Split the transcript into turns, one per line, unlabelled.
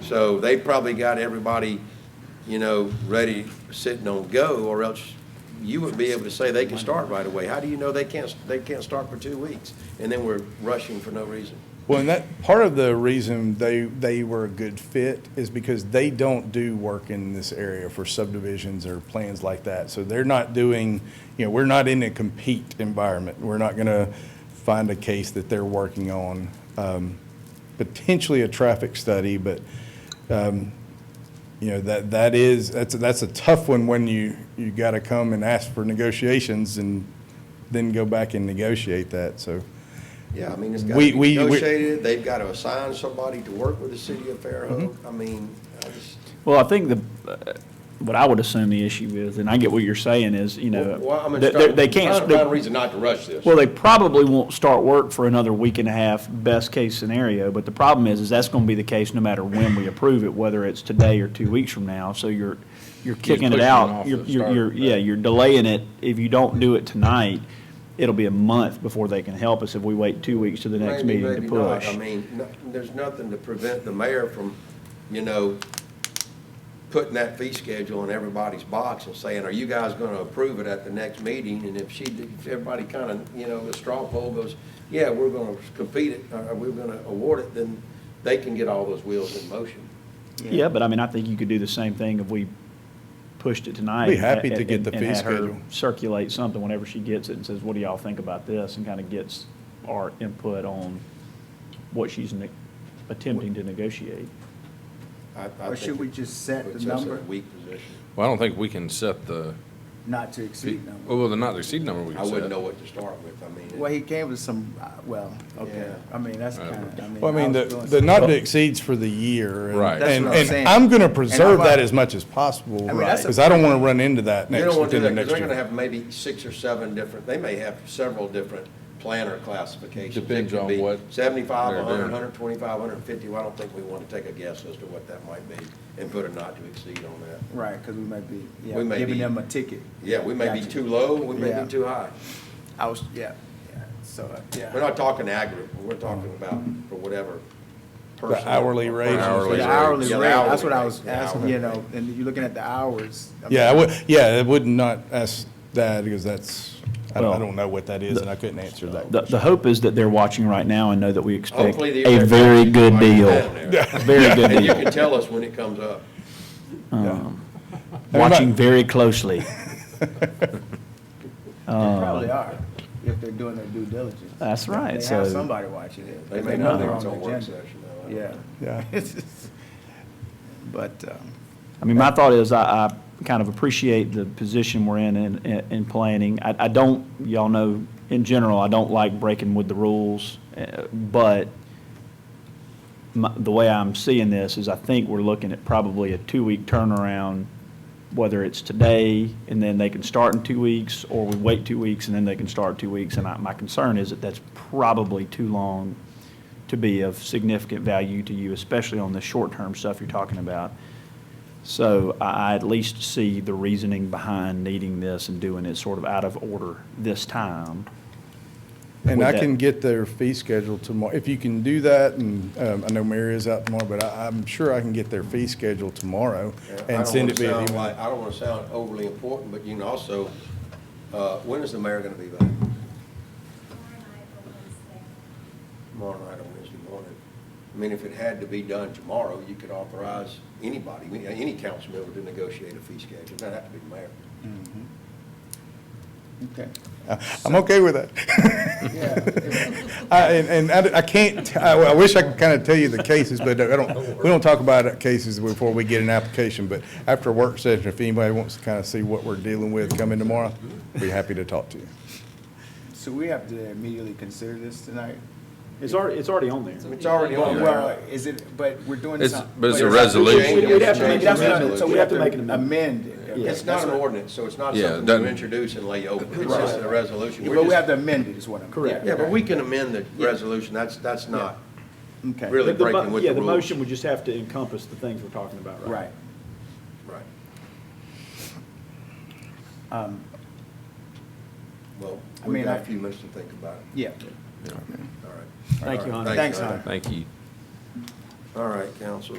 So they probably got everybody, you know, ready, sitting on go, or else you would be able to say they can start right away. How do you know they can't, they can't start for two weeks? And then we're rushing for no reason.
Well, and that, part of the reason they, they were a good fit is because they don't do work in this area for subdivisions or plans like that. So they're not doing, you know, we're not in a compete environment. We're not gonna find a case that they're working on. Um, potentially a traffic study, but, um, you know, that, that is, that's, that's a tough one when you, you gotta come and ask for negotiations and then go back and negotiate that, so.
Yeah, I mean, it's got
We-
to
we- we-
be negotiated, they've got to assign somebody to work with the city of Fairhope.
Mm-hmm.
I mean, I just,
Well, I think the, uh, what I would assume the issue is, and I get what you're saying, is, you know,
well, I'm gonna
they- they
start,
they
I'm trying
can't,
to find a
they-
reason not to rush this.
well, they probably won't start work for another week and a half, best case scenario, but the problem is, is that's going to be the case no matter when we approve it, whether it's today or two weeks from now, so you're, you're kicking it
pushing it
out.
off
You're,
the
you're,
start
you're-
date.
yeah, you're delaying it. If you don't do it tonight, it'll be a month before they can help us if we wait two weeks to the next
Maybe,
meeting to
maybe not.
push.
I mean, no- there's nothing to prevent the mayor from, you know, putting that fee schedule in everybody's box and saying, are you guys going to approve it at the next meeting? And if she, if everybody kind of, you know, the straw poll goes, yeah, we're going to compete it, or we're going to award it, then they can get all those wheels in motion.
Yeah, but I mean, I think you could do the same thing if we pushed it tonight.
Be happy
and-
to get the
and-
fee
and had her
schedule.
Circulate something whenever she gets it and says, what do y'all think about this? And kind of gets our input on what she's ne- attempting to negotiate.
I- I think
Or should we
it
just set the
puts us in a
number
Weak position.
Well, I don't think we can set the,
not to exceed
Oh.
number?
well, the not to exceed number we
I
can set.
wouldn't know what to start with, I mean.
Well, he gave us some, uh, well, okay,
Yeah.
I mean, that's
Right.
kind of, I mean.
Well, I mean, the,
was doing
the
some-
not to exceeds for the year. and-
Right. That's
And,
what I'm
and
saying.
I'm gonna
And I'm
preserve that
like-
as much as possible,
I mean, that's a-
because I don't wanna run into that
They
next,
don't want to
within
do that,
the
'cause
next
they're going to
year.
have maybe six or seven different, they may have several different planner classifications. It
Depends
could
on
be
what
Seventy-five,
they're
a hundred,
doing.
hundred twenty-five, hundred fifty, well, I don't think we want to take a guess as to what that might be and put a not to exceed on that.
Right, because we might be, yeah,
We may
giving
be-
them a ticket.
Yeah, we may be
Gotcha.
too low, we may
Yeah.
be too high.
I was, yeah, yeah, so, uh, yeah.
We're not talking aggregate, we're talking about for whatever person.
hourly
or-
rate.
Hourly
The
rate.
hourly
Yeah,
rate,
the
that's what
hourly
I
rate,
was
the
asking,
hourly
you know,
rate.
and you're looking at the hours. I
Yeah, I
mean,
would, yeah, I would not ask that, because that's, I don't, I
Well,
don't know what that is, and I couldn't answer that.
The, the hope is that they're watching right now and know that we expect
Hopefully the
a
air
very
conditioning
good
might be
deal.
down there.
A Very good
And you
deal.
can tell us when it comes up.
Watching very closely.
Oh.
They probably are, if they're doing their due diligence.
That's right,
They have
so-
somebody watching it.
They
They
may
know
not
they're
think
on
it's a
the
work
agenda.
session. though. I don't
Yeah.
know.
Yeah.
But, um,
I mean, my thought is, I, I kind of appreciate the position we're in, in, in planning. I, I don't, y'all know, in general, I don't like breaking with the rules, uh, but my, the way I'm seeing this is I think we're looking at probably a two-week turnaround, whether it's today, and then they can start in two weeks, or we wait two weeks, and then they can start two weeks. And I, my concern is that that's probably too long to be of significant value to you, especially on the short-term stuff you're talking about. So I I at least see the reasoning behind needing this and doing it sort of out of order this time.
And
Would
I
that-
can get their fee schedule tomorrow. If you can do that, and um, I know Mary is out tomorrow, but I, I'm sure I can get their fee schedule tomorrow
Yeah, I
and
don't
send
wanna
it via
sound
email.
like- I don't want to sound overly important, but you can also, uh, when is the mayor going to be back?
tomorrow night or Wednesday.
Tomorrow night or Wednesday morning? I mean, if it had to be done tomorrow, you could authorize anybody, we- any council member to negotiate a fee schedule. It doesn't have to be the mayor.
okay,
I'm okay with that.
yeah.
I- And, and I I can't, t- I I wish I could kind of tell you the cases, but I don't, we don't talk about cases before we get an application, but after a work session, if anybody wants to kind of see what we're dealing with coming tomorrow, be happy to talk to you.
So we have to immediately consider this tonight?
It's already, it's already on there.
It's already on
Well,
there.
is it, but we're doing
It's-
something.
but it's a resolution.
We'd- we'd have to make- that's what I'm- so
we
we'd have to make
an
amendment. Amend it.
It's not an ordinance, so it's not
Yeah, it
something you
doesn't-
introduce and lay open. It's just a resolution. We're
But we
just-
have to amend it, is what I'm.
Correct.
Yeah, but we can amend the resolution. That's, that's not
Okay.
really breaking with the rules.
would just have to encompass the things we're talking about
Right.
Right.
Um,
Well,
I
we've
mean,
got
I-
a few minutes to think about it.
Yeah.
All right.
Thank you,
All
Hunter.
right.
Thanks, Hunter.
Thank you.
All right, council.